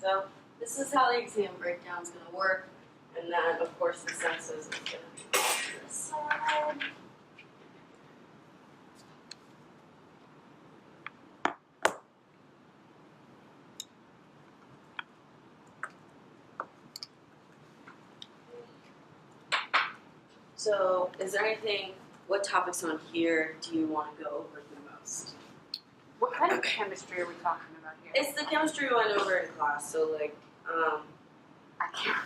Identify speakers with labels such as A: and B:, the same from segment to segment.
A: So this is how the exam breakdown is gonna work. And then, of course, the census is gonna be on this side. So is there anything, what topics on here do you wanna go over the most?
B: What kind of chemistry are we talking about here?
A: It's the chemistry we went over in class, so like, um,
B: I can't.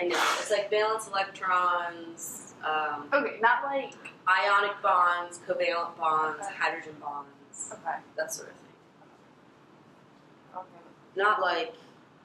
A: I know. It's like valence electrons, um,
B: Okay, not like.
A: ionic bonds, covalent bonds, hydrogen bonds,
B: Okay.
A: that sort of thing.
B: Okay.
A: Not like,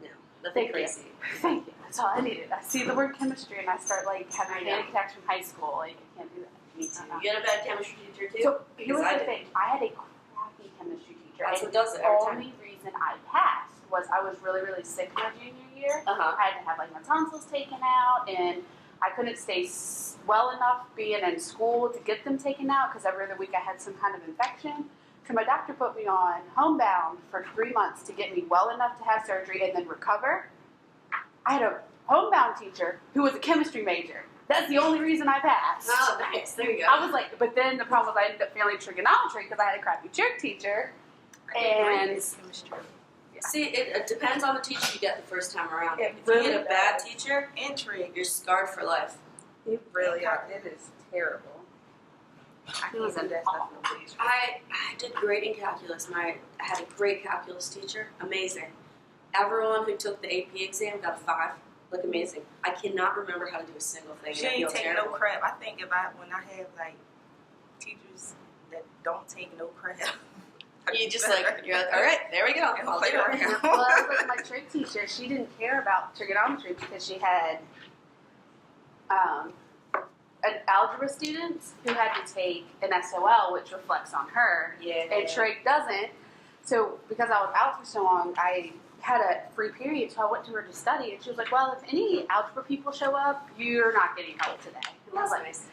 A: no, nothing
B: Thank you.
A: crazy.
B: Thank you. That's all I needed. I see the word chemistry and I start like
A: I
B: having
A: know.
B: panic attacks from high school. Like I can't do that.
A: Me too.
B: Uh-uh.
A: You had a bad chemistry teacher too?
B: So here
A: Because
B: was
A: I
B: the
A: did.
B: thing. I had a crappy chemistry teacher.
A: That's what
B: and
A: does it
B: the
A: every time.
B: only reason I passed was I was really really sick my junior year.
A: Uh huh.
B: I had to have like my tonsils taken out, and I couldn't stay s- well enough being in school to get them taken out because every other week I had some kind of infection. So my doctor put me on homebound for three months to get me well enough to have surgery and then recover. I had a homebound teacher who was a chemistry major. That's the only reason I passed.
A: Oh, nice. There you go.
B: I was like, but then the problem was I ended up failing trigonometry because I had a crappy jerk teacher. And yeah.
A: See, it, it depends on the teacher you get the first time around.
C: It
A: if
C: really
A: you get a bad
C: does.
A: teacher,
C: Intrigue.
A: you're scarred for life.
C: It really are. It is terrible. I
B: It was
C: can't do that stuff
B: awful.
C: no more.
A: I, I did great in calculus. My I had a great calculus teacher. Amazing. Everyone who took the AP exam got a five. Like amazing. I cannot remember how to do a single thing.
C: She
A: I feel
C: ain't take no
A: terrible.
C: crap. I think about when I have like teachers that don't take no crap.
A: You just like you're like, all right, there we go.
C: And
A: I'll
C: play
A: do it."
C: around.
B: well, I was with my trig teacher. She didn't care about trigonometry because she had um, an algebra students who had to take an SOL, which reflects on her,
A: Yeah.
B: and trig doesn't. So because I was out for so long, I had a free period, so I went to her to study, and she was like, "Well, if any algebra people show up, you're not getting help today." And I
A: That's
B: was like,
A: nice.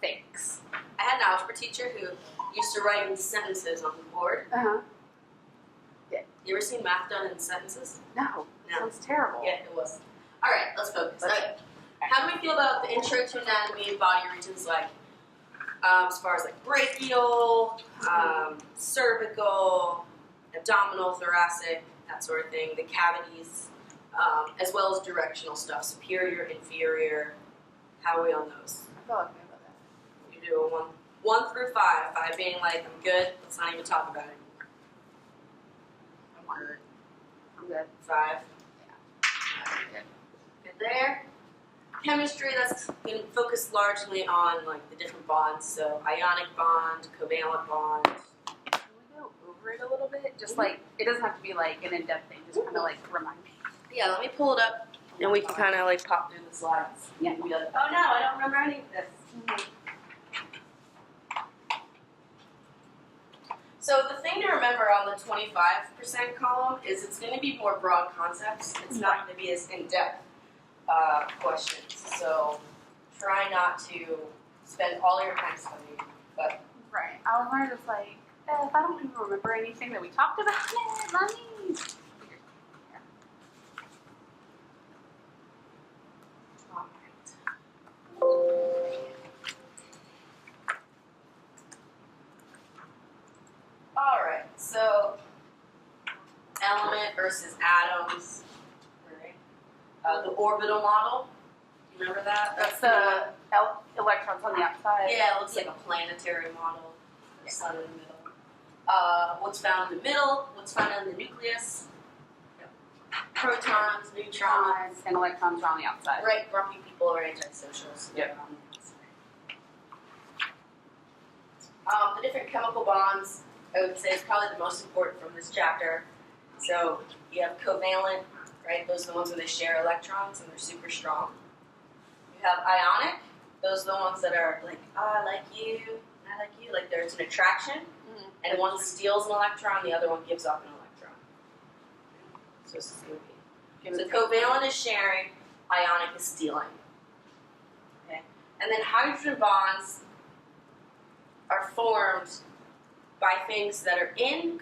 B: "Thanks."
A: I had an algebra teacher who used to write in sentences on the board.
B: Uh huh.
A: You ever seen math done in sentences?
B: No,
A: No.
B: sounds terrible.
A: Yeah, it was. All right, let's focus.
B: Let's-
A: Okay. How do we feel about the intro to anatomy and body regions, like um, as far as like brachial, um, cervical, abdominal, thoracic, that sort of thing, the cavities, um, as well as directional stuff, superior, inferior. How are we on those?
B: I feel like about that.
A: You do a one, one through five. Five being like I'm good. Let's not even talk about it anymore. I'm good.
B: I'm good.
A: Five. Good there. Chemistry, that's going to focus largely on like the different bonds, so ionic bond, covalent bond.
B: Can we go over it a little bit? Just like it doesn't have to be like an in-depth thing. Just kind of like remind me.
A: Yeah, let me pull it up and we can kind of like pop through the slides.
B: Yeah.
A: And be like, oh no, I don't remember any of this. So the thing to remember on the 25% column is it's going to be more broad concepts. It's not going to be as in-depth uh, questions. So try not to spend all your time studying. But
B: Right. I was learn just like eh, if I don't even remember anything that we talked about, eh, let me. All right.
A: all right, so element versus atoms. Right. Uh, the orbital model. You remember that?
B: That's
A: the
B: the el- electrons on the outside.
A: Yeah, it looks like a planetary model, the sun in the middle. Uh, what's found in the middle, what's found in the nucleus, protons, neutrons.
B: Electrons and electrons are on the outside.
A: Right, grumpy people are antisocial, so they're on the outside. Um, the different chemical bonds, I would say, is probably the most important from this chapter. So you have covalent, right? Those are the ones where they share electrons and they're super strong. You have ionic. Those are the ones that are like, oh, I like you, I like you. Like there's an attraction,
B: Mhm.
A: and one steals an electron, the other one gives up an electron. So this is going to be
B: Give
A: so
B: it-
A: covalent is sharing, ionic is stealing. Okay. And then hydrogen bonds are formed by things that are in